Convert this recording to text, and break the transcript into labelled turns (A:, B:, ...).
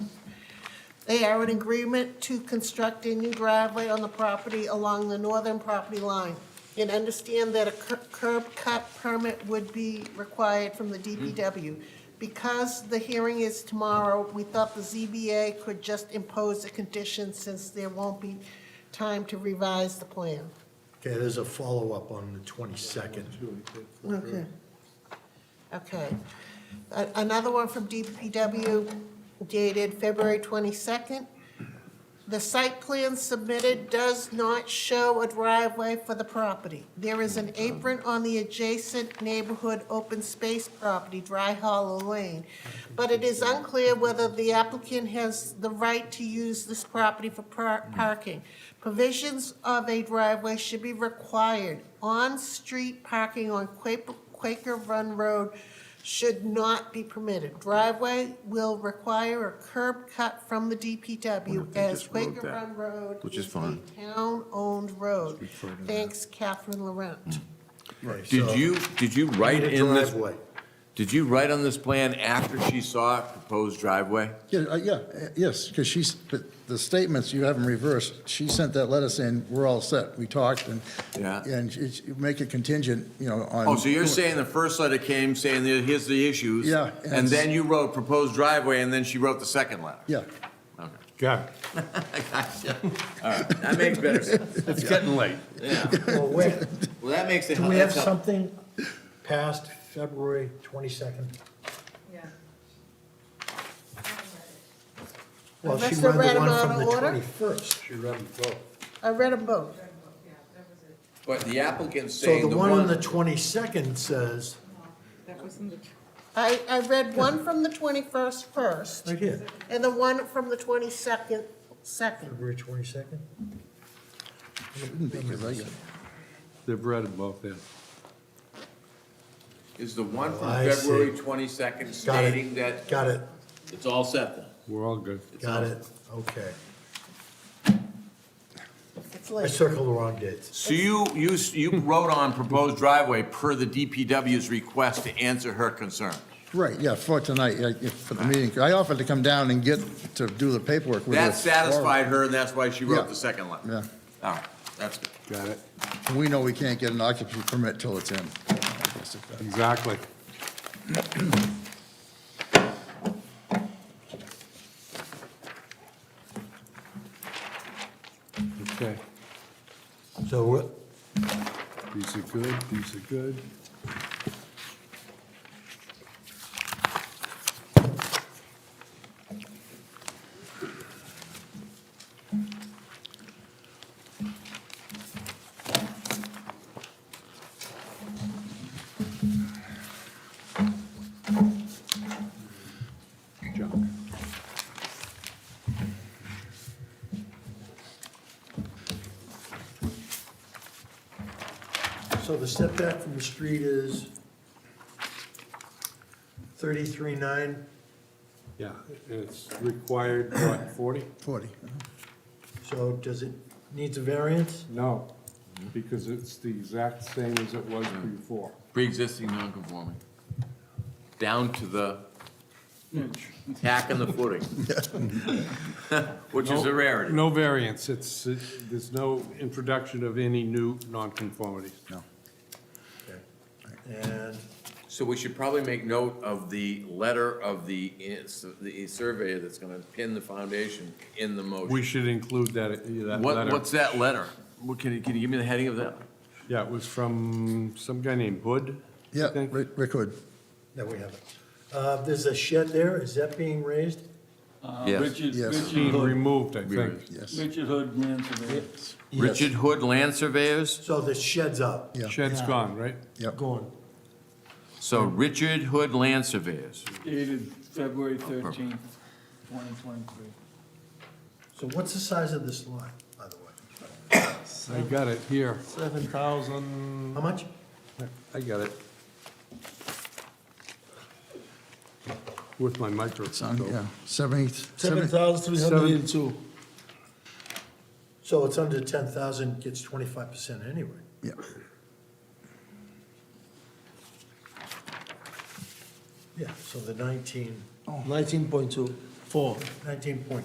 A: They are in agreement to construct a new driveway on the property along the northern property line. And understand that a cur- curb cut permit would be required from the DPW. Because the hearing is tomorrow, we thought the ZBA could just impose a condition since there won't be time to revise the plan.
B: Okay, there's a follow-up on the 22nd.
A: Okay. Okay. A- Another one from DPW dated February 22nd. The site plan submitted does not show a driveway for the property. There is an apron on the adjacent neighborhood open space property, Dry Hollow Lane, but it is unclear whether the applicant has the right to use this property for par- parking. Provisions of a driveway should be required. On-street parking on Quaker Quaker Run Road should not be permitted. Driveway will require a curb cut from the DPW
C: they
A: as
C: just wrote
A: Quaker
C: that,
A: Run Road
C: which is
A: a
C: fine.
A: Town-owned road.
C: Speak Mm. further.
A: Thanks, Catherine Laurent.
B: Right,
C: Did
B: so-
C: you, did you write
B: Need a
C: in this,
B: driveway.
C: did you write on this plan after she saw a proposed driveway?
D: Yeah, uh, yeah, uh, yes, because she's, but the statements you haven't reversed, she sent that letter saying, we're all set, we talked, and,
C: Yeah.
D: and it's- you make it contingent, you know, on.
C: Oh, so you're saying the first letter came saying, that here's the issues?
D: Yeah,
C: And
D: and it's-
C: then you wrote proposed driveway, and then she wrote the second letter?
D: Yeah,
C: Okay.
E: Got it.
C: Gotcha. All right, that makes better sense.
E: It's getting late.
F: Well, wait,
C: Well, that makes it.
F: do we have something past February 22nd?
G: Yeah.
F: Well, she
A: Unless
F: read
A: they're
F: the
A: read 'em
F: one from
A: out
F: the
A: of order?
F: 21st. She read them both.
A: I read them both.
C: But the applicant's
F: So
C: saying
F: the one on the 22nd says,
G: That was in the, tr-
A: I, I read one from the 21st first,
F: right here,
A: and the one from the 22nd second.
F: February 22nd?
D: because I got-
E: They've read them both, yeah.
C: Is the one
F: Oh,
C: from
F: I see.
C: February twenty-second
F: Got it.
C: stating that
F: Got it,
C: it's all set then?
E: We're all good.
F: got it, okay.
A: It's
F: I
A: late.
F: circled the wrong dates.
C: So you, you, you wrote on proposed driveway per the DPW's request to answer her concern?
D: right, yeah, for tonight, yeah, yeah, for the meeting. I offered to come down and get, to do the paperwork with her.
C: That satisfied her, and that's why she wrote the second letter?
D: Yeah,
C: All right, that's good.
E: Got it.
D: And we know we can't get an occupancy permit till it's in.
E: Exactly. Okay,
F: So we're-
E: these are good, these are good. Junk.
F: so the setback from the street is 33.9,
E: Yeah, it's required, what, 40?
D: Forty.
F: so does it, needs a variance?
E: No, because it's the exact same as it was before.
C: Pre-existing non-conforming, down to the tack and the footing. Which is a rarity.
E: No variance, it's, it- there's no introduction of any new nonconformities. No.
F: And
C: So we should probably make note of the letter of the, is- the surveyor that's gonna pin the foundation in the
E: We
C: motion.
E: should include that, that
C: What,
E: letter.
C: what's that letter? What, can you, can you give me the heading of that?
E: Yeah, it was from some guy named Hood, I
D: Yeah,
E: think.
D: Rick Rick Hood.
F: No, we haven't. Uh, There's a shed there, is that being raised?
H: Uh,
C: Yes.
H: Richard,
D: Yes.
E: Being
H: Richard Hood,
E: removed, I think.
C: Removed.
D: yes,
H: Richard Hood Land Surveyors.
C: Richard Hood Land Surveyors?
F: So the shed's up?
D: yeah,
E: Shed's gone, right?
D: yeah.
F: Going.
C: So Richard Hood Land Surveyors.
H: dated February thirteenth, twenty twenty-three.
F: So what's the size of this lot, by the way?
E: I got it here.
F: Seven
E: Thousand,
F: How much?
E: I got it. With my
D: Son,
E: microscope.
D: yeah, seventy,
F: Seven
D: seventy,
F: thousand three hundred and two.
E: 7,302.
F: So it's under ten thousand, gets twenty-five percent anyway.
D: yeah.
F: Yeah, so the nineteen, Oh.
I: Nineteen point two, four.
F: nineteen point